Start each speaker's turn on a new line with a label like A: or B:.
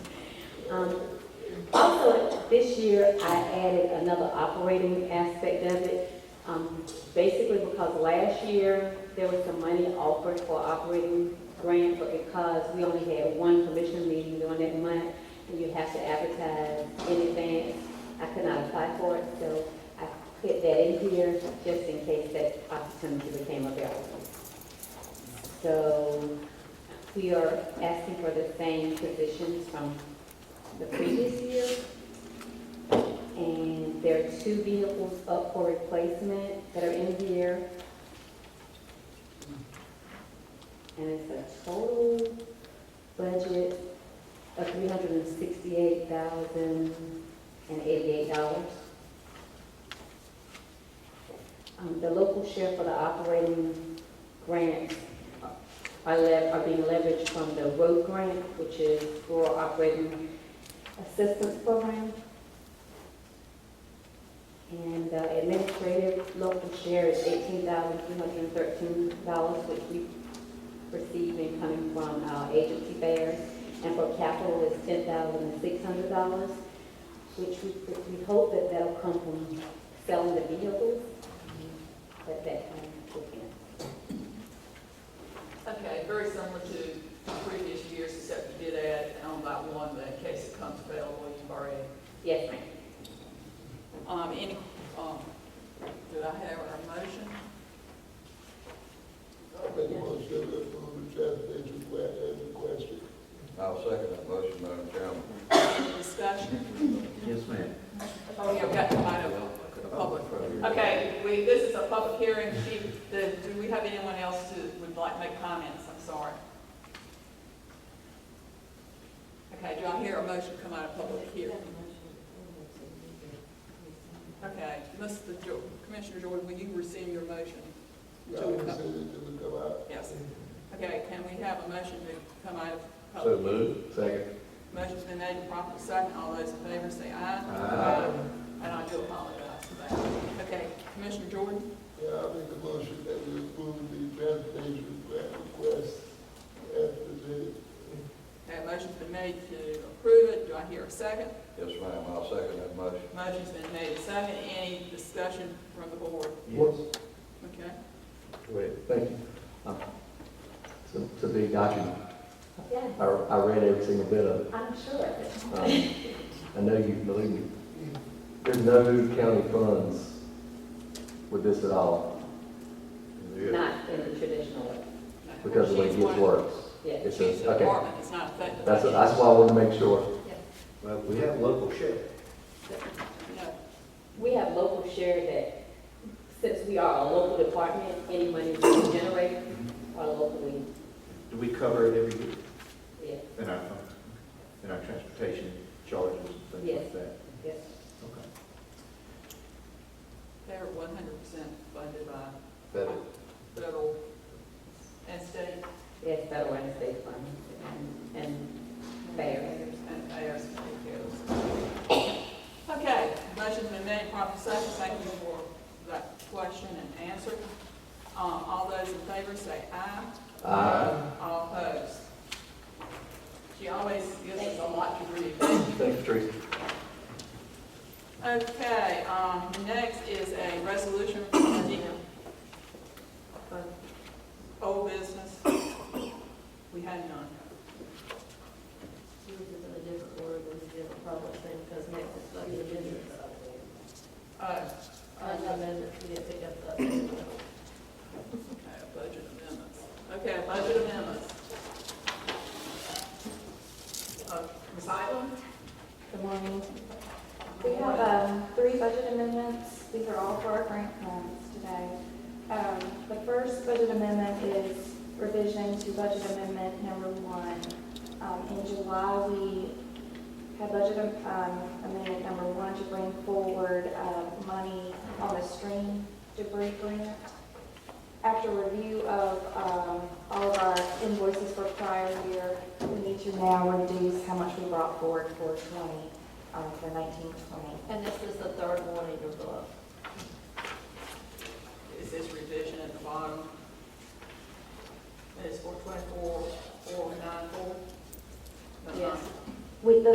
A: Um, Also, this year, I added another operating aspect of it, um, basically because last year, there was some money offered for operating grant, but because we only had one commission meeting during that month, and you have to advertise in advance, I could not apply for it, so I put that in here just in case that opportunity became available. So, we are asking for the same positions from the previous year. And there are two vehicles up for replacement that are in here. And it's a total budget of three hundred and sixty-eight thousand and eighty-eight dollars. Um, the local share for the operating grants are lev, are being leveraged from the road grant, which is rural operating assistance program. And the administrative local share is eighteen thousand three hundred and thirteen dollars, which we receive in coming from our agency fairs. And for capital is ten thousand six hundred dollars, which we, we hope that that'll come from selling the vehicles. But that, um, we
B: Okay, very similar to previous years, except you did add an on-by one, but in case it comes available, you've already.
A: yes, ma'am.
B: Um, any, um, do I have a motion?
C: I make a motion to approve the transportation plan as requested.
D: I'll second that motion, Madam Chairman.
B: Any discussion?
E: Yes, ma'am.
B: Oh, yeah, we got to find out. Public. Okay, we, this is a public hearing. She, the, do we have anyone else who would like to make comments? I'm sorry. Okay, do I hear a motion come out of public hearing? Okay, Mr. Jo- Commissioner Jordan, will you rescind your motion?
C: I would say that it would come out.
B: Yes. Okay, can we have a motion to come out of
E: So
B: public?
E: moved. Second.
B: Motion's been made and properly seconded. All those in favor say aye.
E: Aye.
B: And I do apologize for that. Okay, Commissioner Jordan?
C: Yeah, I make a motion that we approve the transportation plan request as presented.
B: Okay, motion's been made to approve it, do I hear a second?
D: Yes, ma'am, I'll second that motion.
B: Motion's been made and second, any discussion from the board?
E: Yes.
B: Okay,
E: Great, thank you. Um, To, to be documented,
A: Yeah,
E: I, I read every single bit of it.
A: I'm sure.
E: Um, I know you believe me. There's no county funds with this at all
A: Not in the traditional way,
B: no.
E: because of the way it
B: She's
E: gets
B: one-
E: works.
A: yes.
E: It's
B: She's
E: just,
B: the
E: okay,
B: department, it's not affected. by
E: that's,
B: it.
E: that's why I wanted to make sure.
F: Well, we have local sheriff.
B: No.
A: We have local share that, since we are a local department, any money we generate are locally,
F: Do we cover it every year
A: yes,
F: in our funds, in our transportation charges and things
A: Yes.
F: like that?
A: yes.
F: Okay.
B: They're one hundred percent funded by
F: Better.
B: federal and state
A: Yes, federal and state funds and, and fair.
B: and ARC Okay, motion's been made, properly second, thank you for that question and answer. Um, all those in favor say aye.
E: Aye.
B: All opposed? She always gives us a lot to read.
E: Thank you, Teresa.
B: Okay, um, next is a resolution for the for old business. We had none.
G: She was just in a different word, it was a different public thing, because next is like the amendments.
B: Uh,
G: Uh, the amendments, we didn't pick up the amendment.
B: okay, budget amendments. Okay, budget amendments. Uh, Ms. Island?
H: Good morning. We have um, three budget amendments. These are all for our grant funds today. Um, The first budget amendment is revision to budget amendment number one. Um, In July, we had budget um, amendment number one to bring forward uh, money on the stream debris grant. After review of um, all of our invoices for prior year, we need to now reduce how much we brought forward for 20, um, for 1920.
G: And this is the third one in your book.
B: Is this revision at the bottom? It's four twenty-four, four nine four?
A: Yes. With the